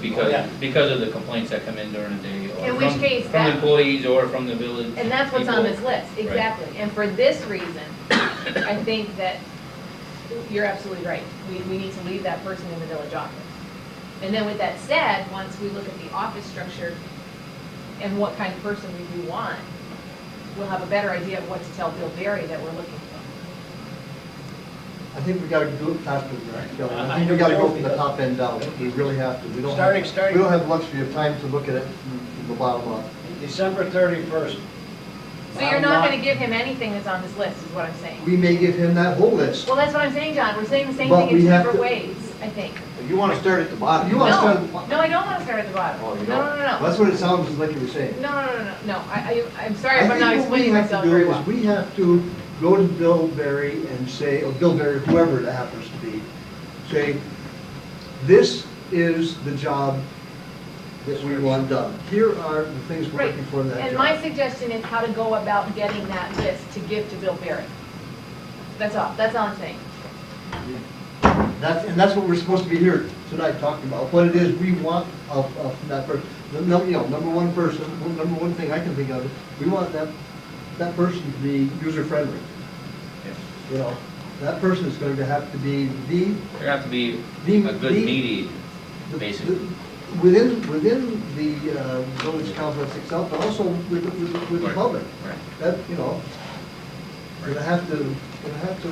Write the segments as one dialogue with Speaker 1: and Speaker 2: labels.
Speaker 1: because,
Speaker 2: Yeah.
Speaker 1: because of the complaints that come in during the day or
Speaker 3: In which
Speaker 1: from,
Speaker 3: case
Speaker 1: from
Speaker 3: that-
Speaker 1: employees or from the village.
Speaker 3: And that's what's on
Speaker 1: people.
Speaker 3: this list, exactly. And for this reason, I think that you're absolutely right. We, we need to leave that person in the village office. And then with that said, once we look at the office structure and what kind of person we do want, we'll have a better idea of what to tell Bill Berry that we're looking for.
Speaker 4: I think we gotta do it faster than that, Kelly. I think we gotta go from the top end down. We really have to. We don't
Speaker 2: Starting-
Speaker 4: have,
Speaker 2: starting-
Speaker 4: we don't have luxury of time to look at it from the bottom up.
Speaker 2: December thirty-first.
Speaker 3: So you're not gonna give him anything that's on this list, is what I'm saying.
Speaker 4: Um, We may give him that whole list.
Speaker 3: Well, that's what I'm saying, John. We're saying the same
Speaker 4: But
Speaker 3: thing in
Speaker 4: we
Speaker 3: two
Speaker 4: have
Speaker 3: different
Speaker 4: to-
Speaker 3: ways, I think.
Speaker 5: You want to start at the bottom.
Speaker 4: You
Speaker 3: No,
Speaker 4: wanna start at the bottom.
Speaker 3: no, I don't wanna start at the bottom.
Speaker 5: Oh,
Speaker 3: No,
Speaker 5: you don't?
Speaker 3: no, no, no.
Speaker 4: That's what it sounds like you were saying.
Speaker 3: No, no, no, no, no, I, I, I'm sorry if
Speaker 4: I
Speaker 3: I'm
Speaker 4: think
Speaker 3: not
Speaker 4: what we
Speaker 3: explaining
Speaker 4: have to
Speaker 3: myself
Speaker 4: do
Speaker 3: very
Speaker 4: is
Speaker 3: well.
Speaker 4: We have to go to Bill Berry and say, or Bill Berry, whoever it happens to be, say, this is the job that we want done. Here are the things we're
Speaker 3: Right,
Speaker 4: looking for in that
Speaker 3: and my
Speaker 4: job.
Speaker 3: suggestion is how to go about getting that list to give to Bill Barry. That's all, that's all I'm saying.
Speaker 4: That's, and that's what we're supposed to be here tonight talking about, what it is we want of, of that person. The num, you know, number one person, one- number one thing I can think of, is we want that, that person to be user-friendly,
Speaker 1: Yeah.
Speaker 4: you know? That person is going to have to be the
Speaker 1: There have to be
Speaker 4: The-
Speaker 1: a good
Speaker 4: the-
Speaker 1: mediator,
Speaker 4: The-
Speaker 1: basically.
Speaker 4: the- Within, within the uh, village complex itself, but also with, the- with, the- with the
Speaker 1: Right.
Speaker 4: public.
Speaker 1: Right.
Speaker 4: That, you know, we're gonna have to, we're gonna have to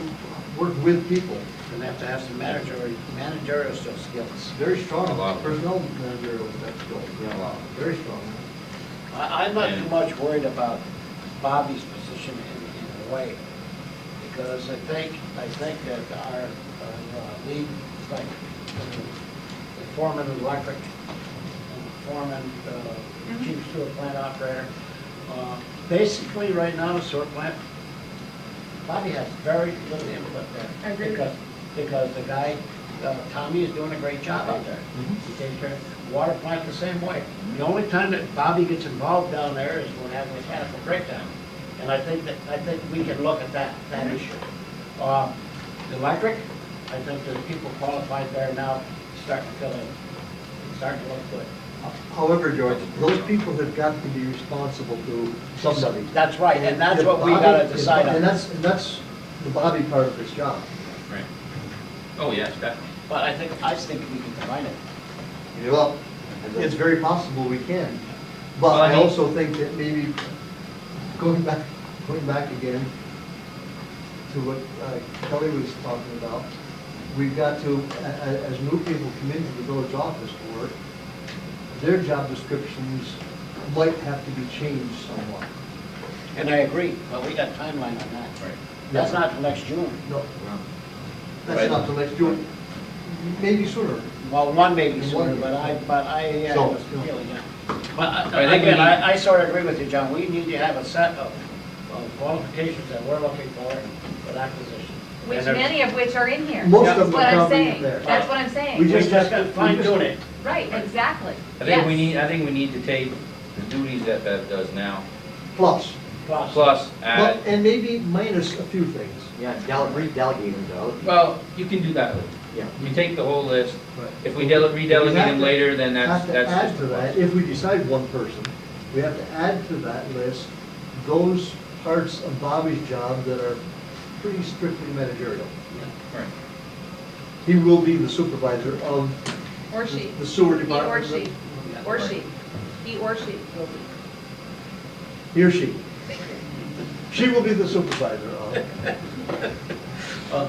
Speaker 4: work with people.
Speaker 2: Gonna have to have some managerial, managerial skills.
Speaker 4: It's very strong,
Speaker 1: A lot.
Speaker 4: personnel managerial, that's good,
Speaker 1: A lot.
Speaker 4: very strong.
Speaker 2: I, I'm not too much worried about Bobby's position in, in a way, because I think, I think that our, uh, lead, like, uh, the foreman of electric, and the foreman, uh,
Speaker 3: Mm-hmm.
Speaker 2: chief sewer plant operator, uh, basically, right now, the sewer plant, Bobby has very little input there.
Speaker 3: I agree with
Speaker 2: Because, because the guy, uh, Tommy is doing a great job out there. He takes care, water plant the same way. The only time that Bobby gets involved down there is when having a mechanical breakdown. And I think that, I think we can look at that, that issue. Uh, The electric, I think there's people qualified there now, starting to fill in, starting to look good.
Speaker 4: However, George, those people have got to be responsible to somebody.
Speaker 2: That's right, and that's what we
Speaker 4: If
Speaker 2: gotta
Speaker 4: Bobby- if-
Speaker 2: decide
Speaker 4: And
Speaker 2: on.
Speaker 4: that's, and that's the Bobby part of his job.
Speaker 1: Right. Oh, yes, definitely.
Speaker 2: But I think, I think we can combine it.
Speaker 4: Well, it's very possible we can,
Speaker 1: Well,
Speaker 4: but
Speaker 1: I
Speaker 4: I
Speaker 1: mean-
Speaker 4: also think that maybe going back, going back again to what uh, Kelly was talking about, we've got to, a- a- as new people come into the village office to work, their job descriptions might have to be changed somewhat.
Speaker 2: And I agree, but we got timeline on that.
Speaker 1: Right.
Speaker 2: That's not till next June.
Speaker 4: No,
Speaker 5: Well,
Speaker 4: that's not till next June, maybe sooner.
Speaker 2: Well, one maybe
Speaker 4: One.
Speaker 2: sooner, but I, but I, I
Speaker 4: So,
Speaker 2: was
Speaker 4: no.
Speaker 2: feeling that. But
Speaker 1: But I
Speaker 2: I-
Speaker 1: think we
Speaker 2: again,
Speaker 1: need-
Speaker 2: I, I sort of agree with you, John, we need to have a set of of qualifications that we're looking for for that position.
Speaker 3: Which
Speaker 2: And there-
Speaker 3: many of which are in here.
Speaker 4: Most
Speaker 2: Yeah.
Speaker 4: of
Speaker 3: That's
Speaker 4: them
Speaker 3: what
Speaker 4: are
Speaker 3: I'm
Speaker 4: probably
Speaker 3: saying,
Speaker 4: there.
Speaker 3: that's what I'm
Speaker 2: We
Speaker 3: saying.
Speaker 4: We just-
Speaker 2: just got fine
Speaker 4: we just-
Speaker 2: doing it.
Speaker 3: Right, exactly,
Speaker 1: I think we
Speaker 3: yes.
Speaker 1: need, I think we need to take the duties that Bev does now,
Speaker 4: Plus,
Speaker 2: Plus,
Speaker 1: plus
Speaker 4: Well,
Speaker 1: add,
Speaker 4: and maybe minus a few things.
Speaker 5: Yeah, dele- redelegate them to other people.
Speaker 1: well, you can do that. later.
Speaker 5: Yeah.
Speaker 1: You take the whole list.
Speaker 4: Right.
Speaker 1: If we dele- redelegate
Speaker 4: We have
Speaker 1: them
Speaker 4: to-
Speaker 1: later, then that's,
Speaker 4: Have to
Speaker 1: that's.
Speaker 4: add
Speaker 1: just
Speaker 4: to
Speaker 1: a plus.
Speaker 4: that, if we decide one person, we have to add to that list those parts of Bobby's job that are pretty strictly managerial.
Speaker 1: Right.
Speaker 4: He will be the supervisor of
Speaker 3: Or she,
Speaker 4: the
Speaker 3: he
Speaker 4: sewer
Speaker 3: or
Speaker 4: department.
Speaker 3: she, or she, he or she will be.
Speaker 4: He or she.
Speaker 3: Thank you.
Speaker 4: She will be the supervisor of.
Speaker 2: uh,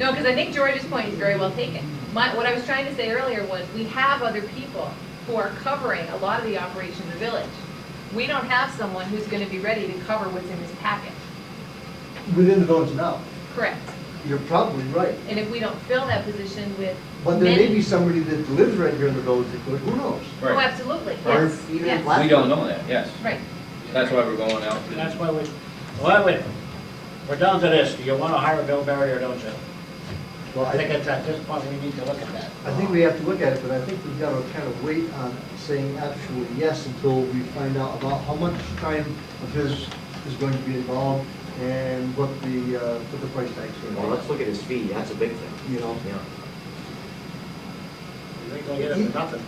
Speaker 3: No, because I think George's point is very well taken. My, what I was trying to say earlier was, we have other people who are covering a lot of the operation of the village. We don't have someone who's gonna be ready to cover what's in this packet.
Speaker 4: Within the village now,
Speaker 3: Correct.
Speaker 4: you're probably right.
Speaker 3: And if we don't fill that position with
Speaker 4: But there may
Speaker 3: many.
Speaker 4: be somebody that lives right here in the village that could, who knows?
Speaker 3: Oh,
Speaker 1: Right.
Speaker 3: absolutely,
Speaker 5: Or
Speaker 3: yes,
Speaker 5: even
Speaker 3: yes,
Speaker 5: less.
Speaker 1: We don't know that, yes.
Speaker 3: right.
Speaker 1: That's why we're going out.
Speaker 2: and that's why we, well, wait, we're down to this, do you want to hire Bill Barry or don't you?
Speaker 4: Well,
Speaker 2: I think it's at this point, we need to look at that.
Speaker 4: I think we have to look at it, but I think we've got to kind of wait on saying absolutely yes until we find out about how much time of his is going to be involved and what the, uh, what the price tag's
Speaker 5: Well,
Speaker 4: going to
Speaker 5: let's look at his fee, that's a big thing,
Speaker 4: be, you know?
Speaker 5: yeah.
Speaker 2: We're going to get it for nothing.